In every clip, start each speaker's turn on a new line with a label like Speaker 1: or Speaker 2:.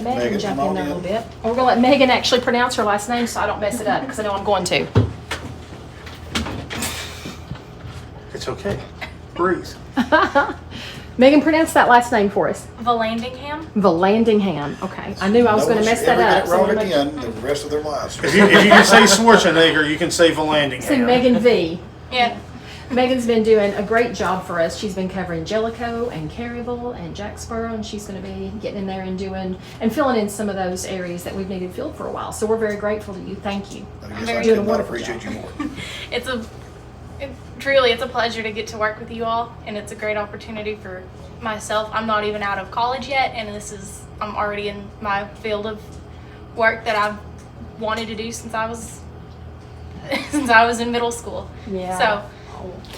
Speaker 1: let Megan
Speaker 2: Megan,
Speaker 1: jump
Speaker 2: come
Speaker 1: in
Speaker 2: on
Speaker 1: there a
Speaker 2: in.
Speaker 1: little bit. And we're gonna let Megan actually pronounce her last name so I don't mess it up, because I know I'm going to.
Speaker 2: It's okay. Breeze.
Speaker 1: Megan, pronounce that last name for us.
Speaker 3: Valandingham?
Speaker 1: Valandingham. Okay, I knew I was gonna
Speaker 2: Nobody
Speaker 1: mess
Speaker 2: should
Speaker 1: that up.
Speaker 2: ever get it
Speaker 1: so I'm
Speaker 2: wrong
Speaker 1: gonna make-
Speaker 2: again the rest of their lives.
Speaker 4: If you, if you can say Schwarzenegger, you can say Volandingham.
Speaker 1: See Megan V.
Speaker 3: Yeah.
Speaker 1: Megan's been doing a great job for us. She's been covering Jellicoe and Caryville and Jacksboro, and she's going to be getting in there and doing and filling in some of those areas that we've needed filled for a while. So we're very grateful to you. Thank you.
Speaker 2: I guess I
Speaker 3: Very
Speaker 2: could not
Speaker 1: wonderful
Speaker 2: appreciate you
Speaker 1: job.
Speaker 2: more.
Speaker 3: It's a it, truly it's a pleasure to get to work with you all and it's a great opportunity for myself. I'm not even out of college yet and this is I'm already in my field of work that I've wanted to do since I was since I was in middle school.
Speaker 1: Yeah.
Speaker 3: So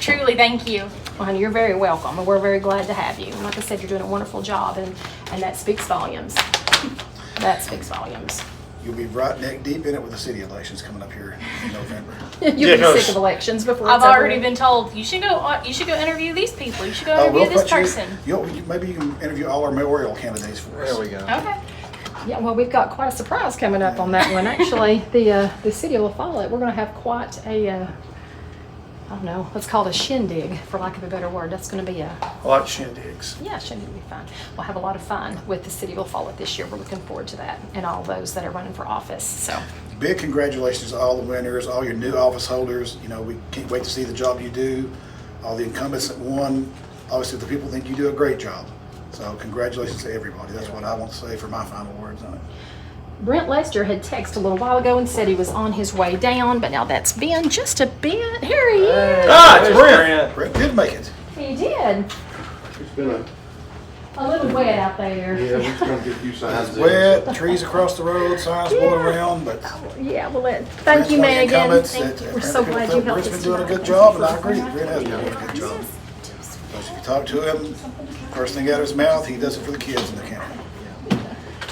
Speaker 3: truly thank you.
Speaker 1: Well, honey, you're very welcome, and we're very glad to have you. And like I said, you're doing a wonderful job, and and that speaks volumes. That speaks volumes.
Speaker 2: You'll be right neck deep in it with the city elections coming up here in November.
Speaker 1: You'll
Speaker 4: Yeah,
Speaker 1: be
Speaker 4: no,
Speaker 1: sick
Speaker 4: sh-
Speaker 1: of elections before
Speaker 3: I've
Speaker 1: it's over
Speaker 3: already
Speaker 1: with.
Speaker 3: been told you should go on- you should go interview these people. You should go
Speaker 2: I will
Speaker 3: interview this
Speaker 2: put Oh, you-
Speaker 3: person.
Speaker 2: You'll, you- maybe you can interview all our mayoral candidates for us.
Speaker 5: There we go.
Speaker 3: Okay.
Speaker 1: Yeah, well, we've got quite a surprise coming up on that one. Actually, the uh, the city of La Follette, we're going to have quite a, uh, I don't know, let's call it a shindig, for lack of a better word. That's going to be a,
Speaker 4: I like shindigs.
Speaker 1: yeah, shindig will be fun. We'll have a lot of fun with the city of La Follette this year. We're looking forward to that and all those that are running for office. So,
Speaker 2: Big congratulations to all the winners, all your new office holders. You know, we can't wait to see the job you do. All the incumbents that won, obviously the people think you do a great job. So congratulations to everybody. That's what I want to say for my final words on it.
Speaker 1: Brent Lester had texted a little while ago and said he was on his way down, but now that's been just a bit. Here he is.
Speaker 4: Ah, it's Brent.
Speaker 2: Brett did make it.
Speaker 1: He did.
Speaker 6: It's been a,
Speaker 1: A little wet out there.
Speaker 6: yeah, we've come to a few signs.
Speaker 2: Wet, trees across the road, signs blowing around, but.
Speaker 1: Yeah, well, it, thank you,
Speaker 2: Brent's making
Speaker 1: Megan.
Speaker 2: comments uh,
Speaker 1: Thank
Speaker 2: that-
Speaker 1: you.
Speaker 2: that
Speaker 1: We're so
Speaker 2: people
Speaker 1: glad
Speaker 2: felt
Speaker 1: you helped
Speaker 2: Brent's
Speaker 1: us.
Speaker 2: been doing a
Speaker 1: tonight. Thank
Speaker 2: good job,
Speaker 1: you
Speaker 2: and I
Speaker 1: for
Speaker 2: agree,
Speaker 1: coming.
Speaker 2: Brent has been doing a good job. Because if you talk to him, first thing out of his mouth, he does it for the kids in the county.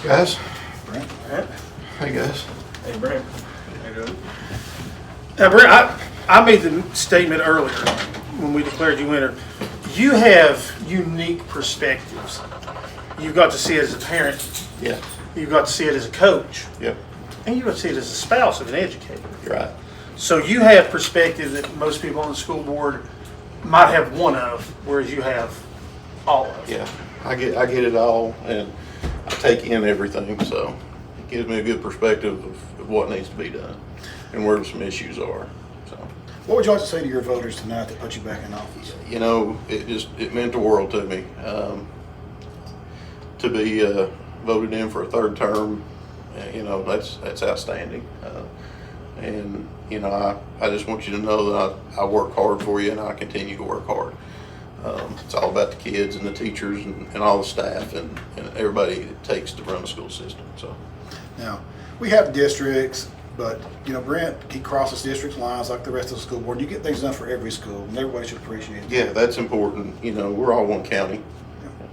Speaker 5: Guys,
Speaker 2: Brent,
Speaker 5: hey guys.
Speaker 4: Hey, Brent. Now, Brent, I, I made the statement earlier when we declared you winner. You have unique perspectives. You've got to see it as a parent,
Speaker 5: Yeah.
Speaker 4: you've got to see it as a coach,
Speaker 5: Yep.
Speaker 4: and you've got to see it as a spouse of an educator.
Speaker 5: You're right.
Speaker 4: So you have perspective that most people on the school board might have one of, whereas you have all of.
Speaker 5: Yeah. I get I get it all, and I take in everything, so it gives me a good perspective of, of what needs to be done and where some issues are. So
Speaker 2: what would you like to say to your voters tonight that put you back in office?
Speaker 5: you know, it just it meant the world to me um, to be uh, voted in for a third term. uh, You know, that's that's outstanding. Uh, and you know, I, I just want you to know that I, I work hard for you, and I continue to work hard. Um, it's all about the kids and the teachers and, and all the staff and, and everybody it takes to run the school system. So
Speaker 2: Now, we have districts, but, you know, Brent, he crosses district lines like the rest of the school board. You get things done for every school, and everybody should appreciate it.
Speaker 5: yeah, that's important. You know, we're all one county.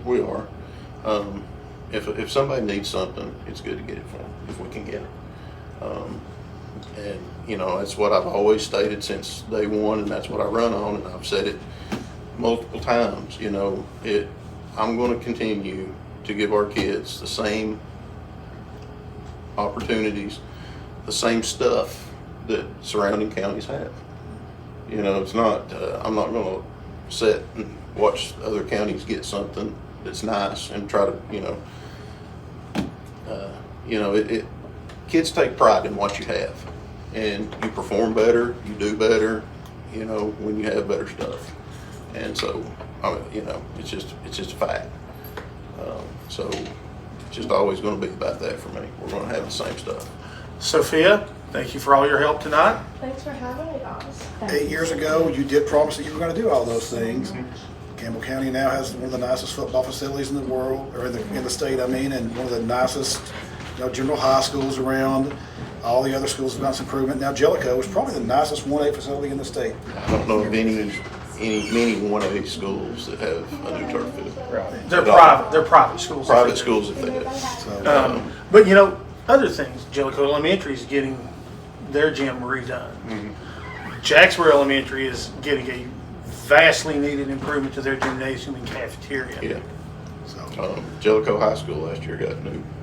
Speaker 5: We are. Um, if, if somebody needs something, it's good to get it for them, if we can get it. Um, and, you know, that's what I've always stated since day one, and that's what I run on, and I've said it multiple times, you know, it, I'm gonna continue to give our kids the same opportunities, the same stuff that surrounding counties have. You know, it's not, uh, I'm not gonna sit and watch other counties get something that's nice and try to, you know, uh, you know, it, it, kids take pride in what you have. And you perform better, you do better, you know, when you have better stuff. And so, I mean, you know, it's just, it's just a fact. Um, so, it's just always gonna be about that for me. We're gonna have the same stuff.
Speaker 4: Sophia, thank you for all your help tonight.
Speaker 7: Thanks for having me, guys.
Speaker 2: Eight years ago, you did promise that you were gonna do all those things. Campbell County now has one of the nicest football facilities in the world, or in the, in the state, I mean, and one of the nicest, you know, general high schools around. All the other schools have done some improvement. Now Jellicoe is probably the nicest one A facility in the state.
Speaker 5: I don't know of any, any, many one of these schools that have a new turf field.
Speaker 4: They're private, they're private schools.
Speaker 5: Private schools if they do.
Speaker 2: So,
Speaker 4: Um, but you know, other things. Jellicoe Elementary is getting their gym redone.
Speaker 5: Mm-hmm.
Speaker 4: Jacksboro Elementary is getting a vastly needed improvement to their gymnasium and cafeteria.
Speaker 5: Yeah.
Speaker 2: so.
Speaker 5: Um, Jellicoe High School last year got new